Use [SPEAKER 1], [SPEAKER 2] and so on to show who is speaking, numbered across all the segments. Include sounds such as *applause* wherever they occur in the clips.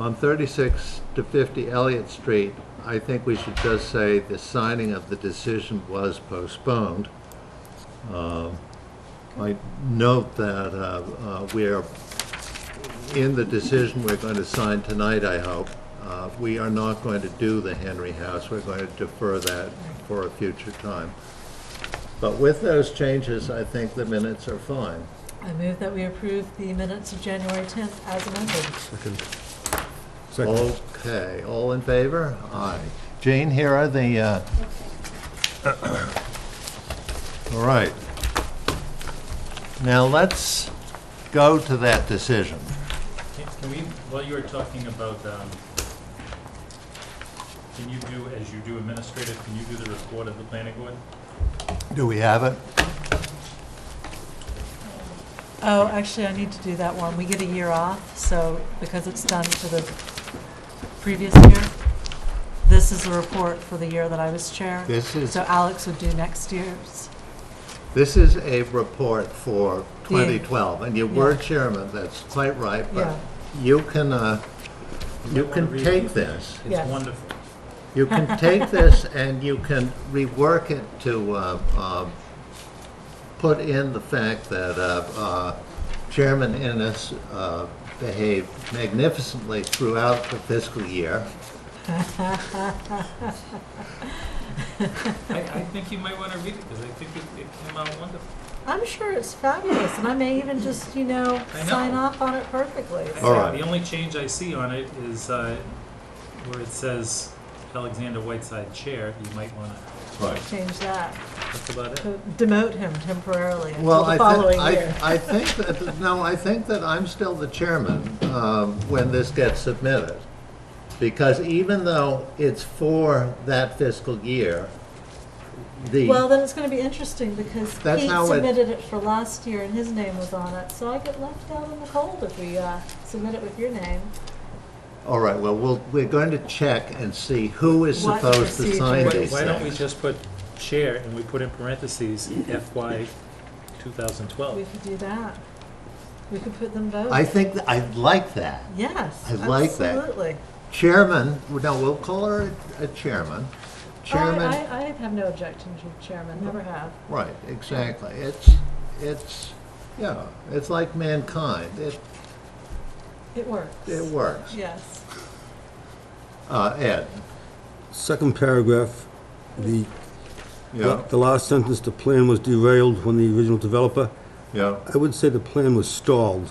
[SPEAKER 1] On 36 to 50 Elliott Street, I think we should just say the signing of the decision was postponed. Um, I note that uh, uh, we are, in the decision we're going to sign tonight, I hope, uh, we are not going to do the Henry House. We're going to defer that for a future time. But with those changes, I think the minutes are fine.
[SPEAKER 2] I move that we approve the minutes of January 10th as amended.
[SPEAKER 1] Oh,
[SPEAKER 3] Second. Second.
[SPEAKER 1] Okay, all in favor? Aye. Jane, here are the, uh, *coughs* all right. Now, let's go to that decision.
[SPEAKER 4] Can can we, while you were talking about, um, can you do, as you do administrative, can you do the report of the planning board?
[SPEAKER 1] Do we have it?
[SPEAKER 2] Oh, actually, I need to do that one. We get a year off, so because it's done for the previous year, this is the report for the year that I was chair.
[SPEAKER 1] This is,
[SPEAKER 2] So Alex would do next year's.
[SPEAKER 1] this is a report for
[SPEAKER 2] Yeah.
[SPEAKER 1] 2012, and you were chairman, that's quite right, but
[SPEAKER 2] Yeah.
[SPEAKER 1] you can, uh, you
[SPEAKER 4] wanna
[SPEAKER 1] can
[SPEAKER 4] read
[SPEAKER 1] take
[SPEAKER 4] it?
[SPEAKER 1] this.
[SPEAKER 2] Yes.
[SPEAKER 4] It's wonderful.
[SPEAKER 1] You can take this and you can rework it to uh, uh, put in the fact that uh, uh, Chairman Innes uh, behaved magnificently throughout the fiscal year.
[SPEAKER 4] I, I think you might want to read it, because I think it, it came out wonderful.
[SPEAKER 2] I'm sure it's fabulous, and I may even just, you know,
[SPEAKER 4] I know.
[SPEAKER 2] sign off on it perfectly.
[SPEAKER 4] I
[SPEAKER 1] All
[SPEAKER 4] think
[SPEAKER 1] right.
[SPEAKER 4] The only change I see on it is, uh, where it says Alexander Whiteside Chair, you might want to,
[SPEAKER 1] Right.
[SPEAKER 2] Change that,
[SPEAKER 4] that's about it.
[SPEAKER 2] to demote him temporarily until
[SPEAKER 1] Well, I
[SPEAKER 2] the
[SPEAKER 1] think,
[SPEAKER 2] following
[SPEAKER 1] I,
[SPEAKER 2] year.
[SPEAKER 1] I think that, no, I think that I'm still the chairman um, when this gets submitted. Because even though it's for that fiscal year, the.
[SPEAKER 2] Well, then it's gonna be interesting, because
[SPEAKER 1] That's
[SPEAKER 2] Pete
[SPEAKER 1] how it-
[SPEAKER 2] submitted it for last year and his name was on it, so I get left out in the cold if we, uh, submit it with your name.
[SPEAKER 1] All right, well, we'll, we're going to check and see who is
[SPEAKER 2] What
[SPEAKER 1] supposed to sign
[SPEAKER 2] procedure?
[SPEAKER 4] Why
[SPEAKER 1] these
[SPEAKER 4] why don't we
[SPEAKER 1] things.
[SPEAKER 4] just put Chair, and we put in parentheses FY 2012?
[SPEAKER 2] We could do that. We could put them both.
[SPEAKER 1] I think, th- I like that.
[SPEAKER 2] Yes.
[SPEAKER 1] I like that.
[SPEAKER 2] Absolutely.
[SPEAKER 1] Chairman, no, we'll call her a chairman.
[SPEAKER 2] I,
[SPEAKER 1] Chairman,
[SPEAKER 2] I, I have no objection to chairman, never have.
[SPEAKER 1] right, exactly. It's, it's, yeah, it's like mankind. It,
[SPEAKER 2] It works.
[SPEAKER 1] it works.
[SPEAKER 2] Yes.
[SPEAKER 1] Uh, Ed?
[SPEAKER 3] Second paragraph, the,
[SPEAKER 1] Yeah,
[SPEAKER 3] the last sentence, the plan was derailed when the original developer,
[SPEAKER 1] yeah.
[SPEAKER 3] I would say the plan was stalled.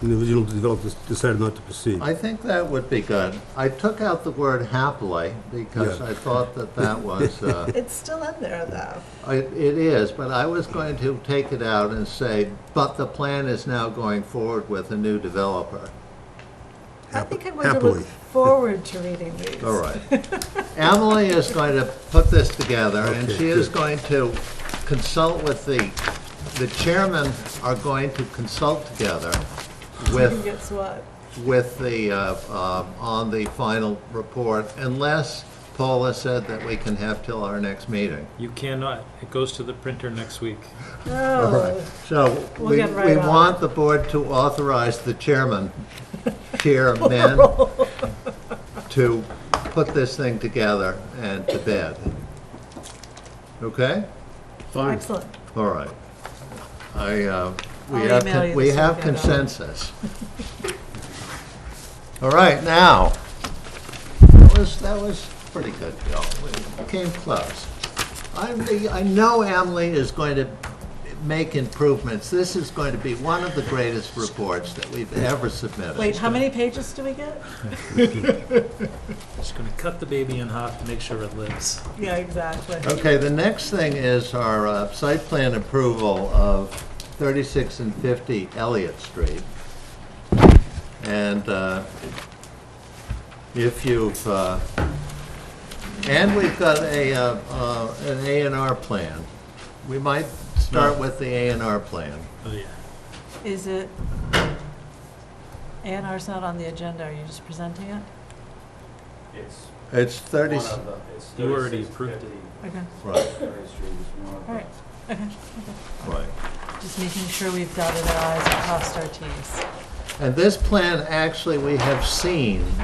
[SPEAKER 3] And the original developer decided not to proceed.
[SPEAKER 1] I think that would be good. I took out the word happily because
[SPEAKER 3] Yeah.
[SPEAKER 1] I thought that that was, uh,
[SPEAKER 2] It's still in there though.
[SPEAKER 1] I- It is, but I was going to take it out and say, but the plan is now going forward with a new developer.
[SPEAKER 2] I
[SPEAKER 3] Hap-
[SPEAKER 2] think I'm going to
[SPEAKER 3] happily.
[SPEAKER 2] look forward to reading these.
[SPEAKER 1] All right. Emily is going to put this together, and
[SPEAKER 3] Okay,
[SPEAKER 1] she is
[SPEAKER 3] good.
[SPEAKER 1] going to consult with the, the chairmen are going to consult together
[SPEAKER 2] Who
[SPEAKER 1] with
[SPEAKER 2] gets what?
[SPEAKER 1] with the, uh, um, on the final report, unless Paula said that we can have till our next meeting.
[SPEAKER 4] You cannot. It goes to the printer next week.
[SPEAKER 1] Uh-huh.
[SPEAKER 2] Oh,
[SPEAKER 1] So
[SPEAKER 2] We'll
[SPEAKER 1] we,
[SPEAKER 2] get right
[SPEAKER 1] we
[SPEAKER 2] on it.
[SPEAKER 1] want the board to authorize the
[SPEAKER 2] *laughs*
[SPEAKER 1] chairman, chairman, to put this thing together and to bed. Okay?
[SPEAKER 2] excellent.
[SPEAKER 1] All right. I, uh, we
[SPEAKER 2] I'll
[SPEAKER 1] have,
[SPEAKER 2] email
[SPEAKER 1] con-
[SPEAKER 2] you
[SPEAKER 1] we
[SPEAKER 2] this
[SPEAKER 1] have
[SPEAKER 2] weekend, I'll-
[SPEAKER 1] consensus. All right, now, that was, that was pretty good, Bill. We Came close. I'm, the- I know Emily is going to make improvements. This is going to be one of the greatest reports that we've ever submitted.
[SPEAKER 2] Wait, how many pages do we get?
[SPEAKER 4] Just gonna cut the baby in half to make sure it lives.
[SPEAKER 2] Yeah, exactly.
[SPEAKER 1] Okay, the next thing is our uh, site plan approval of 36 and 50 Elliott Street. And uh, if you've, uh, and we've got a, uh, uh, an A and R plan. We might start with the A and R plan.
[SPEAKER 4] Oh, yeah.
[SPEAKER 2] Is it, A and R's not on the agenda, are you just presenting it?
[SPEAKER 5] It's
[SPEAKER 1] It's
[SPEAKER 5] one
[SPEAKER 1] 30,
[SPEAKER 5] of the, it's
[SPEAKER 4] You already
[SPEAKER 5] thirty-six
[SPEAKER 4] approved it.
[SPEAKER 5] fifty,
[SPEAKER 2] Okay,
[SPEAKER 1] right,
[SPEAKER 5] Cherry Street is one of
[SPEAKER 2] all right,
[SPEAKER 5] the.
[SPEAKER 2] okay.
[SPEAKER 1] right.
[SPEAKER 2] Just making sure we've dotted our i's and crossed our t's.
[SPEAKER 1] And this plan, actually, we have seen